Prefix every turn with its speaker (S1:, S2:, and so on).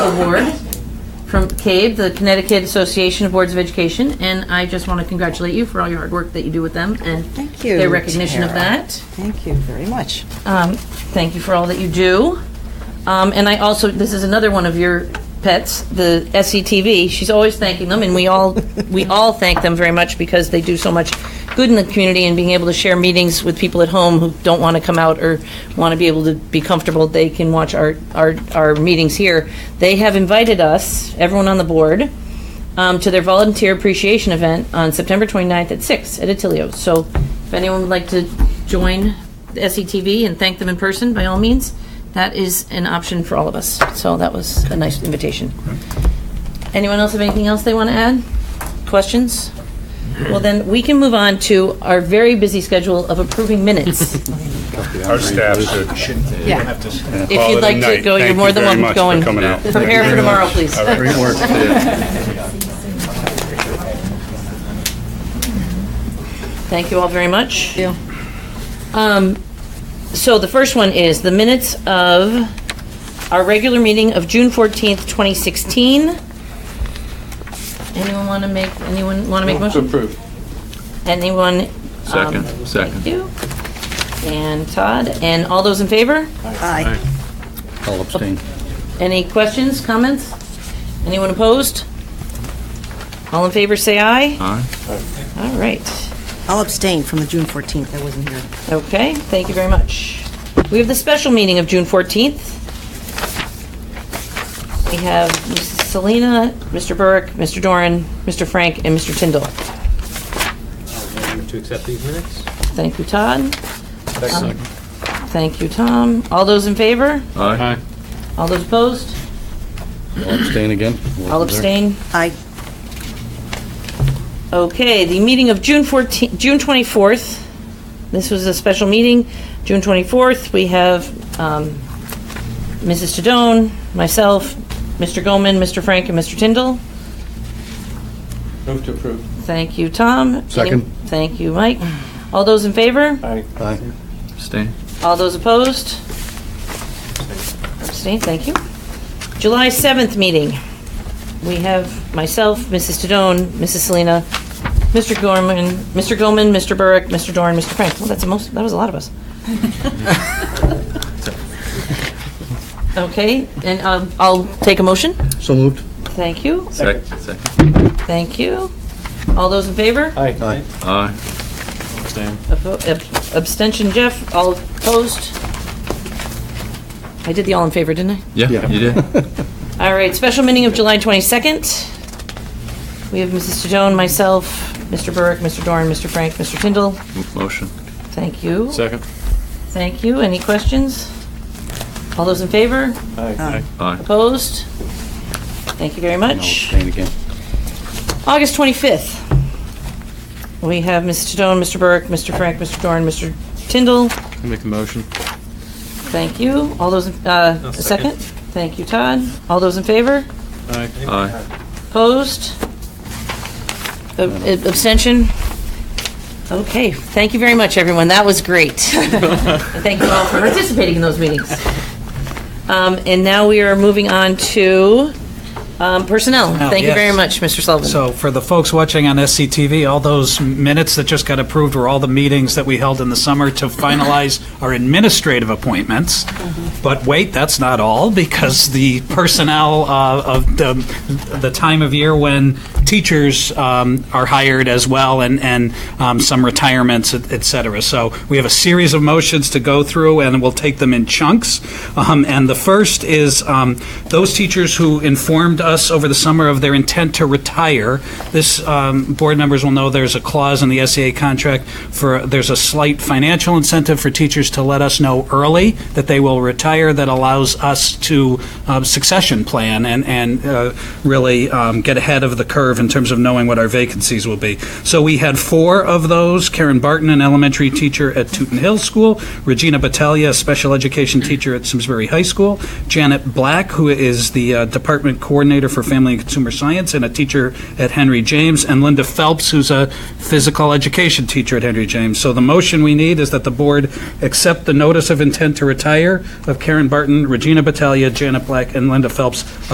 S1: award from CABE, the Connecticut Association of Boards of Education, and I just want to congratulate you for all your hard work that you do with them and
S2: Thank you.
S1: their recognition of
S2: Tara.
S1: that.
S2: Thank you very much.
S1: Um, Thank you for all that you do. Um, And I also, this is another one of your pets, the SCTV. She's always thanking them, and we all, we all thank them very much because they do so much good in the community and being able to share meetings with people at home who don't want to come out or want to be able to be comfortable, they can watch our, our, our meetings here. They have invited us, everyone on the board, um, to their volunteer appreciation event on September 29th at 6 at Attilio. So if anyone would like to join the SETV and thank them in person, by all means, that is an option for all of us. So that was a nice invitation. Anyone else have anything else they want to add? Questions? Well, then, we can move on to our very busy schedule of approving minutes.
S3: Our staff should.
S2: Yeah.
S1: If you'd like to go, you're more than welcome to go and prepare for tomorrow, please.
S3: Great work.
S1: Thank you all very much. Um, So the first one is the minutes of our regular meeting of June 14th, 2016. Anyone want to make, anyone want to make a motion?
S4: Approved.
S1: Anyone? um,
S4: Second, second.
S1: Thank you. And Todd, and all those in favor?
S2: Aye.
S3: I'll abstain.
S1: Any questions, comments? Anyone opposed? All in favor, say aye.
S4: Aye.
S1: All right.
S2: I'll abstain from the June 14th. I wasn't here.
S1: Okay, thank you very much. We have the special meeting of June 14th. We have Mrs. Selena, Mr. Burke, Mr. Doran, Mr. Frank, and Mr. Tyndall.
S5: To accept these minutes?
S1: Thank you, Todd. Thank you, Tom. All those in favor?
S4: Aye.
S1: All those opposed?
S3: I'll abstain again.
S1: All abstain?
S2: Aye.
S1: Okay, the meeting of June 14, June 24th, this was a special meeting, June 24th, we have um, Mrs. Tadone, myself, Mr. Goman, Mr. Frank, and Mr. Tyndall.
S5: Move to approve.
S1: Thank you, Tom.
S3: Second.
S1: Any- Thank you, Mike. All those in favor?
S5: Aye.
S3: Aye.
S4: Abstain.
S1: All those opposed? Abstain, thank you. July 7th meeting. We have myself, Mrs. Tadone, Mrs. Selena, Mr. Gorman, Mr. Goman, Mr. Burke, Mr. Doran, Mr. Frank. Well, that's the most, that was a lot of us. Okay, and um, I'll take a motion.
S3: So moved.
S1: Thank you,
S4: Second, second.
S1: thank you. All those in favor?
S3: Aye.
S4: Aye.
S1: Oppo- ab- Abstention, Jeff. All opposed? I did the all in favor, didn't I?
S4: Yeah, you did.
S1: All right, special meeting of July 22nd. We have Mrs. Sedone, myself, Mr. Burke, Mr. Dorn, Mr. Frank, Mr. Tyndall.
S4: Motion.
S1: Thank you.
S5: Second.
S1: Thank you. Any questions? All those in favor?
S5: Aye.
S4: Aye.
S1: Opposed? Thank you very
S3: I'll
S1: much.
S3: abstain again.
S1: August 25th. We have Mrs. Sedone, Mr. Burke, Mr. Frank, Mr. Dorn, Mr. Tyndall.
S5: Make a motion.
S1: Thank you. All those, in- uh, a second?
S5: second.
S1: Thank you, Todd. All those in favor?
S5: Aye.
S4: Aye.
S1: Opposed? Ab- ab- Abstention? Okay, thank you very much, everyone. That was great. And Thank you all for participating in those meetings. Um, And now we are moving on to um, personnel. Thank you very much,
S6: yes.
S1: Mr. Sullivan.
S6: So for the folks watching on SCTV, all those minutes that just got approved were all the meetings that we held in the summer to finalize our administrative appointments. But wait, that's not all, because the personnel uh, of the, the time of year when teachers um, are hired as well, and, and um, some retirements, et et cetera. So we have a series of motions to go through, and we'll take them in chunks. Um, And the first is um, those teachers who informed us over the summer of their intent to retire. This, um, board members will know there's a clause in the SEA contract for, there's a slight financial incentive for teachers to let us know early that they will retire that allows us to um, succession plan and, and uh, really um, get ahead of the curve in terms of knowing what our vacancies will be. So we had four of those, Karen Barton, an elementary teacher at Tooten Hill School, Regina Battaglia, a special education teacher at Simsbury High School, Janet Black, who is the uh, department coordinator for family and consumer science and a teacher at Henry James, and Linda Phelps, who's a physical education teacher at Henry James. So the motion we need is that the board accept the notice of intent to retire of Karen Barton, Regina Battaglia, Janet Black, and Linda Phelps